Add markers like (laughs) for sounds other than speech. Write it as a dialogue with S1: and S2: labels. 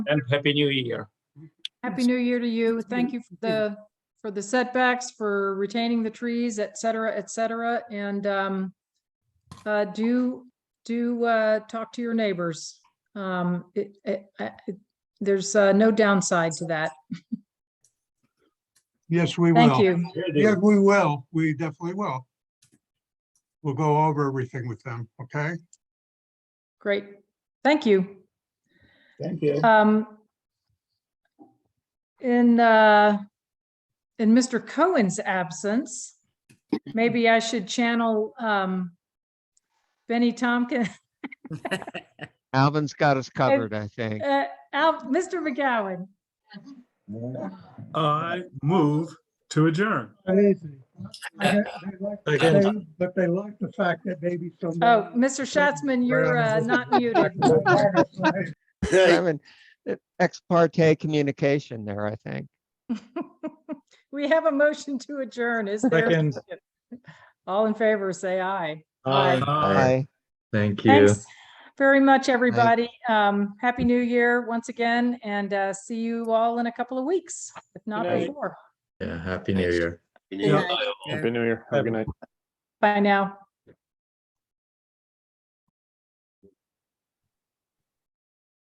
S1: and Happy New Year.
S2: Happy New Year to you. Thank you for the, for the setbacks, for retaining the trees, et cetera, et cetera. And um, uh, do, do uh, talk to your neighbors. Um, it- it- I- it- There's uh, no downside to that.
S3: Yes, we will.
S2: Thank you.
S3: Yeah, we will. We definitely will. We'll go over everything with them, okay?
S2: Great. Thank you.
S1: Thank you.
S2: Um, in, uh, in Mr. Cohen's absence, maybe I should channel, um, Benny Tompkins.
S4: Alvin's got us covered, I
S2: (laughs)
S4: think.
S2: Uh, Al, Mr. McGowan,
S5: I move to adjourn.
S6: Crazy. I got- they like- they- But they like the fact that maybe someone.
S2: oh, Mr. Schatzman, you're uh, not muted. (laughs)
S4: Simon, uh, Ex parte communication there, I think.
S2: We have a motion to adjourn, is there? All in favor, say aye. Aye.
S5: Aye.
S4: Aye.
S7: Thank you.
S2: Thanks very much, everybody. Um, Happy New Year once again, and uh, see you all in a couple of weeks, if not
S1: night.
S2: before.
S7: Yeah, happy new year.
S5: Yeah.
S8: Happy New Year. Have a good night.
S2: Bye now.